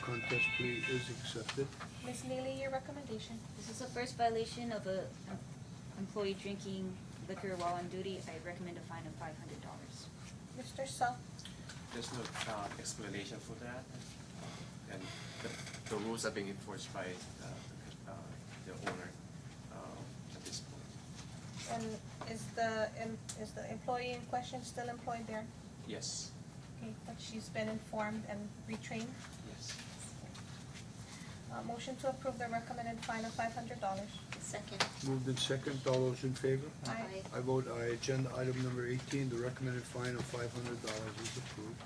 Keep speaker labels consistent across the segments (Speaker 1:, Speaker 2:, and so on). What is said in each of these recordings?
Speaker 1: contest plea is accepted.
Speaker 2: Ms. Neely, your recommendation?
Speaker 3: This is the first violation of a em- employee drinking liquor while on duty. I recommend a fine of five hundred dollars.
Speaker 2: Mr. Sal,
Speaker 4: There's no uh, explanation for that. Uh, And the, the rules are being enforced by uh, the- uh, the owner uh, at this point.
Speaker 2: and is the, em- is the employee in question still employed there?
Speaker 4: Yes,
Speaker 2: Okay, but she's been informed and retrained.
Speaker 4: yes.
Speaker 2: Uh, motion to approve the recommended fine of five hundred dollars.
Speaker 5: Second.
Speaker 1: Moved in second, all those in favor?
Speaker 2: Aye.
Speaker 1: I vote aye. Agenda item number eighteen, the recommended fine of five hundred dollars is approved.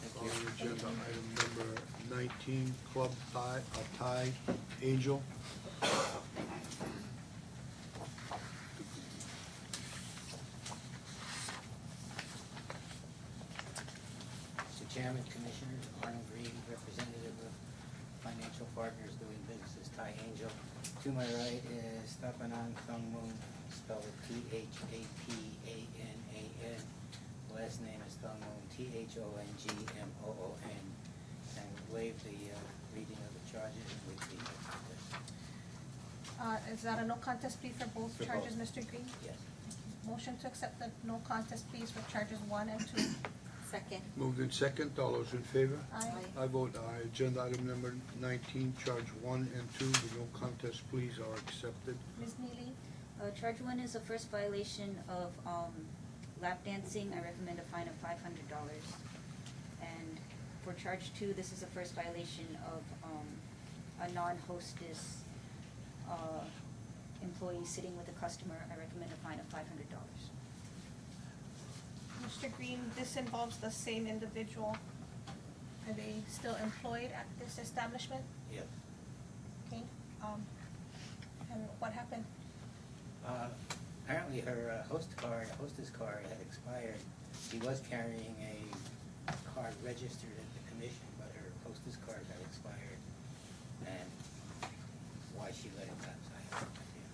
Speaker 4: Thank
Speaker 1: Calling
Speaker 4: you.
Speaker 1: agenda item number nineteen, Club Thai, uh, Thai Angel.
Speaker 6: Mr. Chairman, Commissioners, Arnold Green, representative of Financial Partners doing business as Thai Angel. To my right is Tapanan Thongmun, spelled T-H-A-P-A-N-A-N. Last name is Thongmun, T-H-O-N-G-M-O-O-N. And waive the uh, reading of the charges and waive the contest.
Speaker 2: Uh, is that a no contest plea for both
Speaker 6: For both.
Speaker 2: charges, Mr. Green?
Speaker 6: Yes.
Speaker 2: Motion to accept the no contest pleas for charges one and two.
Speaker 5: Second.
Speaker 1: Moved in second, all those in favor?
Speaker 2: Aye.
Speaker 5: Aye.
Speaker 1: I vote aye. Agenda item number nineteen, charge one and two, the no contest pleas are accepted.
Speaker 2: Ms. Neely,
Speaker 3: Uh, charge one is the first violation of, um, lap dancing. I recommend a fine of five hundred dollars. And for charge two, this is the first violation of, um, a non-hostess, uh, employee sitting with a customer. I recommend a fine of five hundred dollars.
Speaker 2: Mr. Green, this involves the same individual. Are they still employed at this establishment?
Speaker 6: Yes.
Speaker 2: Okay, um, and what happened?
Speaker 6: Uh, Apparently her uh, host card, hostess card had expired. She was carrying a card registered at the commission, but her hostess card got expired. And why she let it lapse, I have no idea.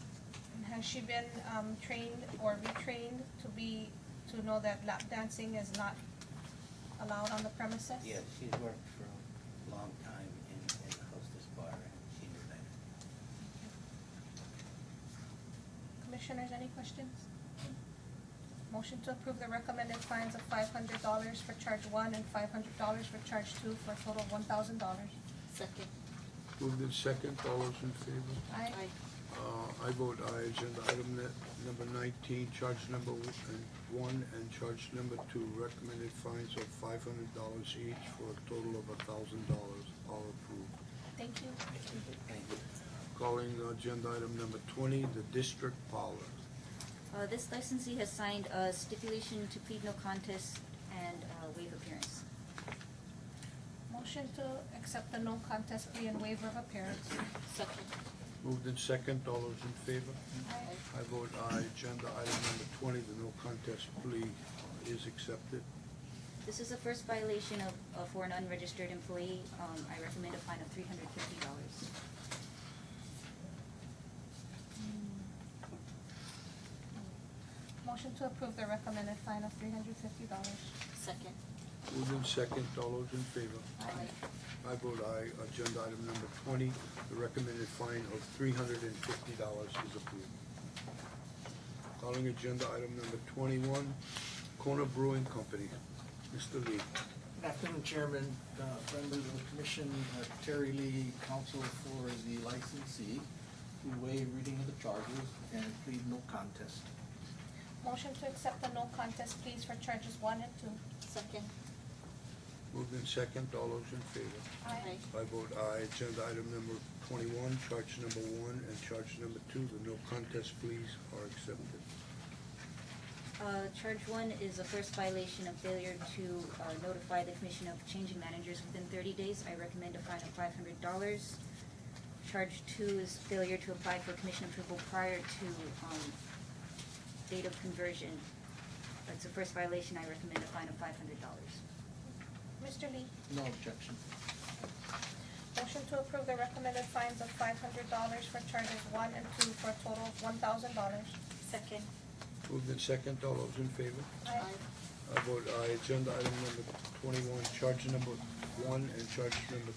Speaker 2: And has she been, um, trained or retrained to be, to know that lap dancing is not allowed on the premises?
Speaker 6: Yes, she's worked for a long time in, in the hostess bar, and she knew that.
Speaker 2: Commissioners, any questions? Motion to approve the recommended fines of five hundred dollars for charge one and five hundred dollars for charge two for a total of one thousand dollars.
Speaker 5: Second.
Speaker 1: Moved in second, all those in favor?
Speaker 2: Aye.
Speaker 1: Uh, I vote aye. Agenda item ni- number nineteen, charge number w- and one and charge number two, recommended fines of five hundred dollars each for a total of a thousand dollars. All approved.
Speaker 2: Thank you.
Speaker 6: Thank you.
Speaker 1: Calling agenda item number twenty, the district parlor.
Speaker 3: Uh, this licensee has signed a stipulation to plead no contest and uh, waive appearance.
Speaker 2: Motion to accept the no contest plea and waiver of appearance.
Speaker 5: Second.
Speaker 1: Moved in second, all those in favor?
Speaker 2: Aye.
Speaker 1: I vote aye. Agenda item number twenty, the no contest plea uh, is accepted.
Speaker 3: This is the first violation of, of for an unregistered employee. Um, I recommend a fine of three hundred fifty dollars.
Speaker 2: Motion to approve the recommended fine of three hundred fifty dollars.
Speaker 5: Second.
Speaker 1: Moved in second, all those in favor? I vote aye. Agenda item number twenty, the recommended fine of three hundred and fifty dollars is approved. Calling agenda item number twenty-one, Kona Brewing Company. Mr. Lee.
Speaker 7: Good afternoon, Chairman, uh, members of the commission, uh, Terry Lee, counsel for the licensee, to waive reading of the charges and plead no contest.
Speaker 2: Motion to accept the no contest pleas for charges one and two.
Speaker 5: Second.
Speaker 1: Moved in second, all those in favor?
Speaker 5: Aye.
Speaker 1: I vote aye. Agenda item number twenty-one, charge number one and charge number two, the no contest pleas are accepted.
Speaker 3: Uh, charge one is the first violation of failure to uh, notify the commission of changing managers within thirty days. I recommend a fine of five hundred dollars. Charge two is failure to apply for commission approval prior to, um, date of conversion. That's the first violation. I recommend a fine of five hundred dollars.
Speaker 2: Mr. Lee?
Speaker 7: No objection.
Speaker 2: Motion to approve the recommended fines of five hundred dollars for charges one and two for a total of one thousand dollars.
Speaker 5: Second.
Speaker 1: Moved in second, all those in favor?
Speaker 2: Aye.
Speaker 1: I vote aye. Agenda item number twenty-one, charge number one and charge number